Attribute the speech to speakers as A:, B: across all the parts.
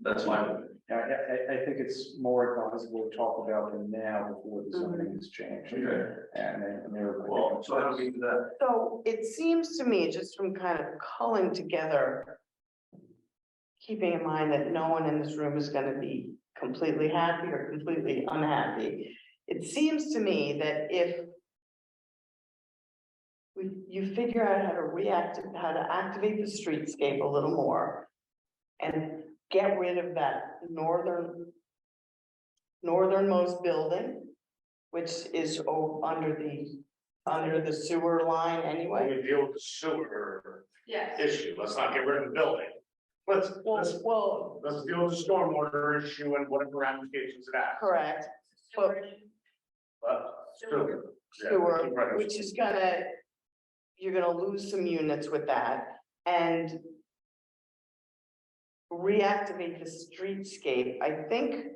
A: That's my,
B: I, I, I think it's more advisable to talk about them now before the zoning is changed.
A: Okay.
B: And then, and they're.
A: well, so how do we do that?
C: So it seems to me, just from kind of culling together, keeping in mind that no one in this room is gonna be completely happy or completely unhappy. It seems to me that if we, you figure out how to react, how to activate the streetscape a little more and get rid of that northern, northernmost building, which is o- under the under the sewer line
D: When
C: anyway.
D: we deal with the sewer
C: Yes.
D: issue, let's not get rid of the building. Let's, let's, well, let's deal with the stormwater issue and whatever ramifications it has.
C: Correct, but
D: But sewer, yeah,
C: sewer,
D: right.
C: which is gonna, you're gonna lose some units with that and reactivate the streetscape, I think.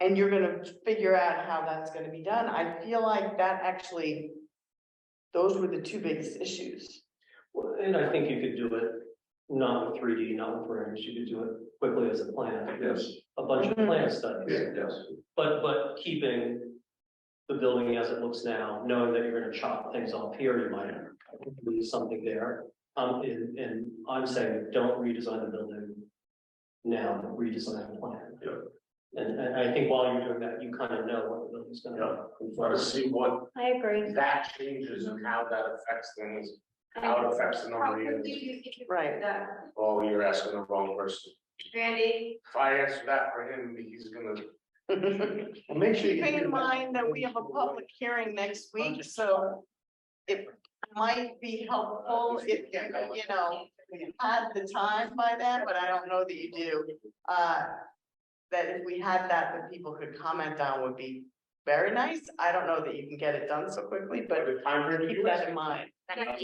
C: And you're gonna figure out how that's gonna be done. I feel like that actually, those were the two biggest issues.
E: Well, and I think you could do it not with three D, not with renderings, you could do it quickly as a plan.
A: Yes,
E: A bunch of
C: Mhm.
E: plan studies,
A: yes,
E: but, but keeping the building as it looks now, knowing that you're gonna chop things off here, you might lose something there. Um, and, and I'm saying, don't redesign the building now, but redesign the plan.
A: Yeah.
E: And, and I think while you're doing that, you kind of know what the building's gonna
D: Yeah,
E: look
D: we want to see what
F: I agree.
D: that changes and how that affects things, how it affects the number of units.
C: Right.
D: Oh, you're asking the wrong person.
F: Randy,
D: If I answer that for him, he's gonna.
B: Well, Make sure. you
C: Keeping
B: do that.
C: in mind that we have a public hearing next week, so it might be helpful if, you know, we had the time by then, but I don't know that you do. Uh, that if we had that, that people could comment on would be very nice. I don't know that you can get it done so quickly, but
D: The time frame
C: keep
D: you
C: that
D: ask.
C: in mind. Otherwise,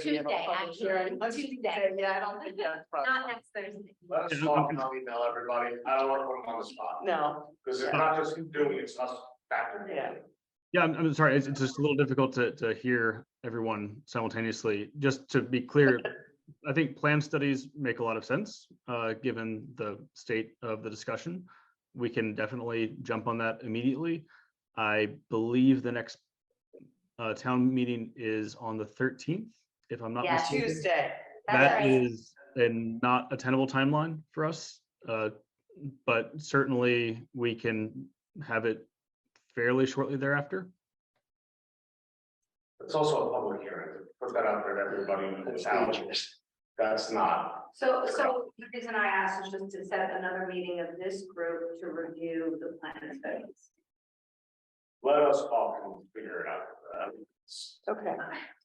F: Tuesday,
C: then we have a
F: Tuesday,
C: public
F: actually,
C: hearing.
F: Tuesday,
C: Yeah, I don't think that's
F: not
C: probably,
F: next Thursday.
D: Let us talk and I'll email everybody. I don't want to put him on the spot.
C: no,
D: Because it's not just him doing it, it's us factoring in.
C: Yeah.
G: Yeah, I'm, I'm sorry. It's, it's just a little difficult to, to hear everyone simultaneously. Just to be clear, I think plan studies make a lot of sense, uh, given the state of the discussion. We can definitely jump on that immediately. I believe the next uh, town meeting is on the thirteenth, if I'm not
F: Yeah.
G: mistaken.
C: Tuesday.
F: That's
G: That
F: right.
G: is a not a tenable timeline for us, uh, but certainly we can have it fairly shortly thereafter.
D: It's also a public hearing. Put that out there to everybody in the town. That's not,
H: So, so the reason I asked is just to set another meeting of this group to review the plan studies.
D: let us all come figure it out. Uh, it's-
C: Okay.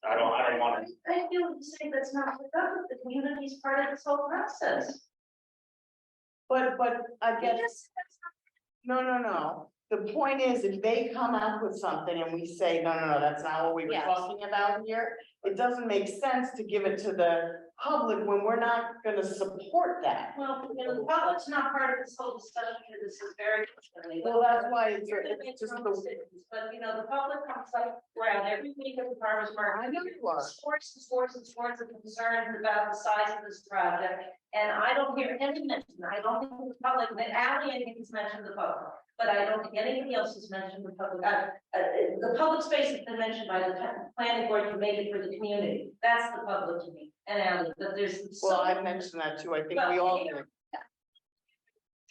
D: I don't, I don't want to,
H: I feel the same, that's not the government, the community is part of this whole process.
C: But, but I guess.
H: Yes, that's
C: No, no, no. The point is, if they come up with something and we say, no, no, no, that's not what we were
F: Yes.
C: talking about here, it doesn't make sense to give it to the public when we're not gonna support that.
H: not- Well, you know, the public's not part of this whole discussion, and this is very. concerning.
C: Well, that's why it's,
H: You're gonna make
C: it's just
H: your own
C: the,
H: decisions, But, you know, the public comes like, around every week at the farmer's market.
C: I know you are.
H: Sports, sports, and sports of concerns about the size of this project, and I don't hear any mention, I don't think the public, that Ally, I think, has mentioned the public. But I don't think anybody else has mentioned the public, uh, uh, the public space has been mentioned by the pa- planning board, you made it for the community, that's the public to me, and Ally, but there's. so
C: well, I mentioned that too. I think we all, do.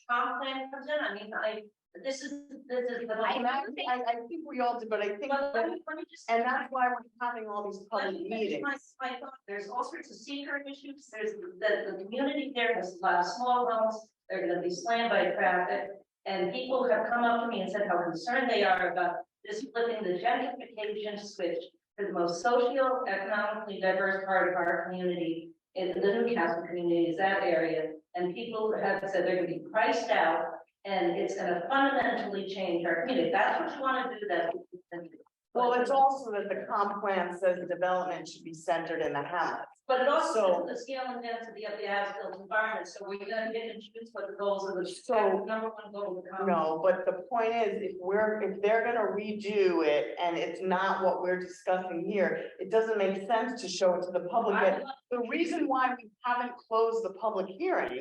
H: Comp plan comes in, I mean, I, this is, this is the.
C: I, I I think we all did, but I think,
H: But let me- let me just-
C: and that's why we're having all these
H: let
C: public
H: me finish
C: meetings.
H: my- my thought. There's all sorts of secret issues, there's the, the community there has a lot of small homes, they're gonna be slammed by traffic. And people have come up to me and said how concerned they are about this flipping the gentrification switch for the most socioeconomically diverse part of our community, in the Newcastle community is that area, and people have said they're gonna be priced out, and it's gonna fundamentally change our community, that's what you wanna do, that's. what you can do.
C: Well, it's also that the comp plan says the development should be centered in the hamlet.
H: But it also
C: So-
H: is the scale and density of the as-built environment, so we're gonna get and choose what the goals of the.
C: So-
H: Number one goal of the common.
C: No, but the point is, if we're, if they're gonna redo it and it's not what we're discussing here, it doesn't make sense to show it to the public.
H: I
C: yet. The reason why we haven't closed the public hearing